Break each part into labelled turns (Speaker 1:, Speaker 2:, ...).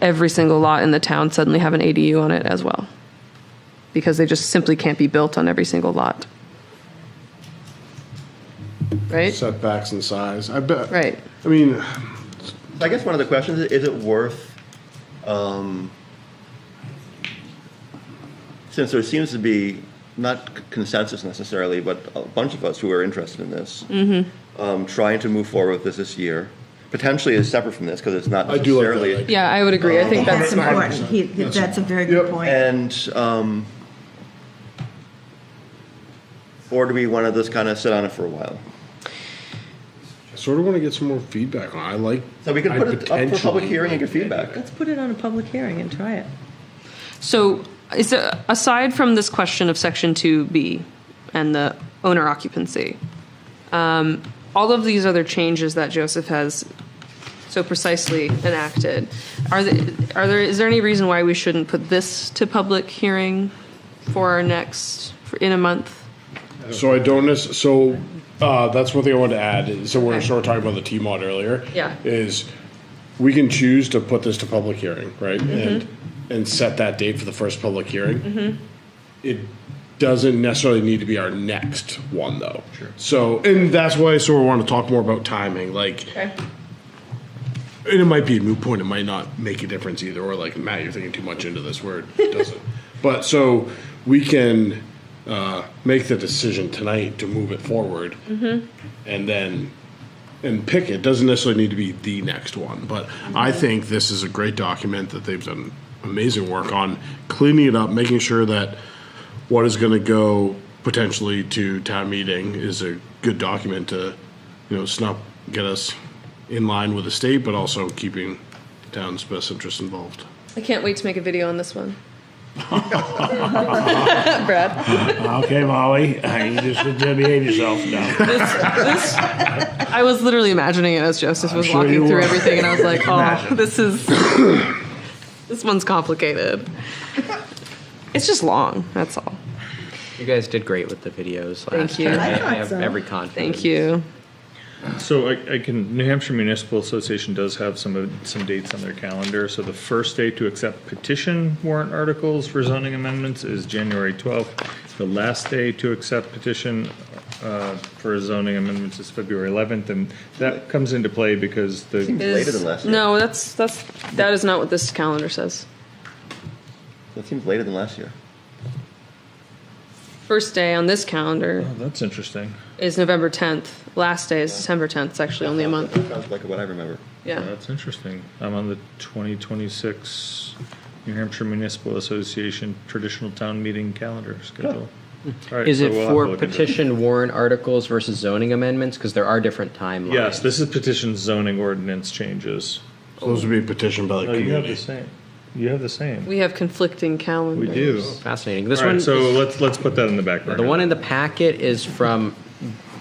Speaker 1: every single lot in the town suddenly have an ADU on it as well. Because they just simply can't be built on every single lot. Right?
Speaker 2: setbacks and size. I bet.
Speaker 1: Right.
Speaker 2: I mean,
Speaker 3: I guess one of the questions is, is it worth, um, since there seems to be, not c- consensus necessarily, but a bunch of us who are interested in this,
Speaker 1: Mm-hmm.
Speaker 3: um, trying to move forward with this this year, potentially is separate from this, because it's not
Speaker 2: I do like that
Speaker 3: necessarily.
Speaker 2: idea.
Speaker 1: Yeah, I would agree. I think that's
Speaker 2: That's
Speaker 1: smart.
Speaker 2: important.
Speaker 4: He- That's a very good
Speaker 2: Yep.
Speaker 4: point.
Speaker 3: And, um, or do we want to just kind of sit on it for a while?
Speaker 2: I sort of want to get some more feedback on. it. I like.
Speaker 3: So we could
Speaker 2: I
Speaker 3: put it up for public
Speaker 2: potentially-
Speaker 3: hearing and get feedback.
Speaker 5: Let's put it on a public hearing and try it.
Speaker 1: So is there, aside from this question of section two B and the owner occupancy, um, all of these other changes that Joseph has so precisely enacted, are the, are there, is there any reason why we shouldn't put this to public hearing for our next, for- in a month?
Speaker 2: So I don't necess- so uh, that's one thing I wanted to add. is- So we we're
Speaker 1: Okay.
Speaker 2: sort of talking about the T mod earlier.
Speaker 1: Yeah.
Speaker 2: Is we can choose to put this to public hearing, right?
Speaker 1: Mm-hmm.
Speaker 2: And and set that date for the first public hearing. It doesn't necessarily need to be our next one though. Sure. So and that's why I sort of want to talk more about timing. Like
Speaker 1: Okay.
Speaker 2: and it might be a moot point. It might not make a difference either. Or like Matt, you're thinking too much into this word. It doesn't. but so we can uh, make the decision tonight to move it forward, and then and pick it. Doesn't necessarily need to be the next one, but I think this is a great document that they've done amazing work on cleaning it up, making sure that what is going to go potentially to town meeting is a good document to, you know, snuff, get us in line with the state, but also keeping town's best interests involved.
Speaker 1: I can't wait to make a video on this one. Brad,
Speaker 6: Okay, Molly, uh, you just behave yourself now.
Speaker 1: I was literally imagining it as Joseph was
Speaker 6: sure
Speaker 1: walking
Speaker 6: you
Speaker 1: through
Speaker 6: were.
Speaker 1: everything, and I was like, "Oh,
Speaker 6: Imagine.
Speaker 1: this is this one's complicated. It's just long. That's all.
Speaker 7: You guys did great with the videos last
Speaker 1: you.
Speaker 7: time.
Speaker 1: I
Speaker 4: thought
Speaker 7: have
Speaker 4: so.
Speaker 7: every confidence.
Speaker 1: Thank you.
Speaker 8: So I, I can, New Hampshire Municipal Association does have some, of- some dates on their calendar. So the first day to accept petition warrant articles for zoning amendments is January 12th. The last day to accept petition uh, for zoning amendments is February 11th. And that comes into play because the,
Speaker 3: Later than last year.
Speaker 1: No, that's that's that is not what this calendar says.
Speaker 3: That seems later than last year.
Speaker 1: First day on this calendar
Speaker 8: oh, that's interesting.
Speaker 1: is November 10th. Last day is December 10th. It's actually only a month.
Speaker 3: That Sounds like what I remember.
Speaker 1: Yeah.
Speaker 8: That's interesting. I'm on the 2026 New Hampshire Municipal Association Traditional Town Meeting Calendar schedule. All right,
Speaker 7: Is
Speaker 8: so
Speaker 7: it
Speaker 8: we'll have to
Speaker 7: for
Speaker 8: look into it.
Speaker 7: petition warrant articles versus zoning amendments? Because there are different timelines.
Speaker 8: Yes, this is petition zoning ordinance changes.
Speaker 2: So those would be petitioned by the
Speaker 8: No, you have
Speaker 2: community.
Speaker 8: the same. You have the same.
Speaker 1: We have conflicting calendars.
Speaker 8: We do.
Speaker 7: Fascinating. This
Speaker 8: All
Speaker 7: one,
Speaker 8: right, so let's, let's put that in the back burner.
Speaker 7: the one in the packet is from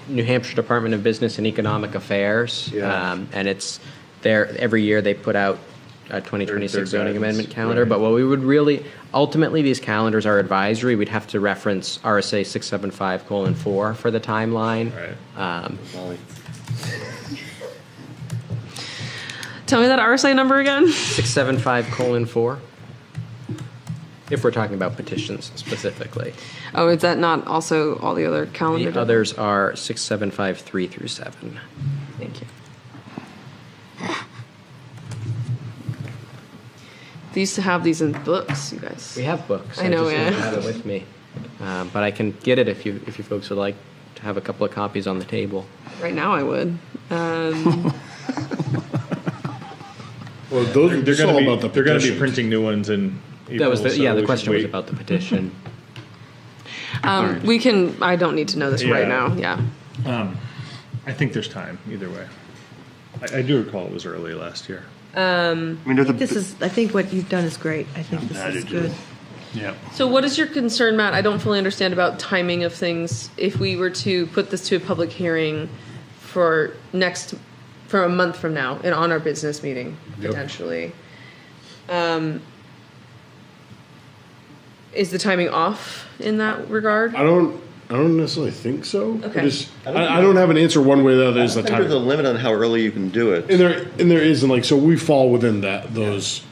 Speaker 7: New Hampshire Department of Business and Economic Affairs.
Speaker 8: Yeah.
Speaker 7: Um, and it's there, every year they put out a 2026
Speaker 8: Their- their
Speaker 7: zoning
Speaker 8: guidance,
Speaker 7: amendment calendar.
Speaker 8: right.
Speaker 7: But what we would really, ultimately, these calendars are advisory. We'd have to reference RSA 675 colon 4 for the timeline.
Speaker 8: Right.
Speaker 7: Um,
Speaker 3: Molly.
Speaker 1: Tell me that RSA number again.
Speaker 7: 675 colon 4? If we're talking about petitions specifically.
Speaker 1: Oh, is that not also all the other calendar?
Speaker 7: The others are 6753 through 7.
Speaker 1: Thank you. They used to have these in books, you guys.
Speaker 7: We have books.
Speaker 1: I know,
Speaker 7: just don't
Speaker 1: yeah.
Speaker 7: have it with me. Uh, But I can get it if you, if you folks would like to have a couple of copies on the table.
Speaker 1: Right now, I would.
Speaker 2: Well, those,
Speaker 8: They're
Speaker 2: it's all
Speaker 8: gonna
Speaker 2: about
Speaker 8: be,
Speaker 2: the
Speaker 8: they're gonna be
Speaker 2: petition.
Speaker 8: printing new ones in April.
Speaker 7: That was, the
Speaker 8: so
Speaker 7: yeah,
Speaker 8: we
Speaker 7: the
Speaker 8: should
Speaker 7: question was
Speaker 8: wait.
Speaker 7: about the petition.
Speaker 1: Um, we can. I don't need to know this right
Speaker 8: Yeah.
Speaker 1: now. Yeah.
Speaker 8: I think there's time, either way. I, I do recall it was early last year.
Speaker 3: I mean, there's a.
Speaker 4: This is, I think what you've done is great. I think
Speaker 6: I
Speaker 4: this is
Speaker 6: do too.
Speaker 4: good.
Speaker 1: So, what is your concern, Matt? I don't fully understand about timing of things. If we were to put this to a public hearing for next, for a month from now, and on our business meeting potentially, um, is the timing off in that regard?
Speaker 2: I don't. I don't necessarily think so.
Speaker 1: Okay.
Speaker 2: I, just,
Speaker 3: I
Speaker 2: I,
Speaker 3: don't
Speaker 2: I, don't have an answer one way or the other. Is the
Speaker 3: I think There's a
Speaker 2: time
Speaker 3: limit on how early you can do it.
Speaker 2: and there and there isn't like so we fall within that those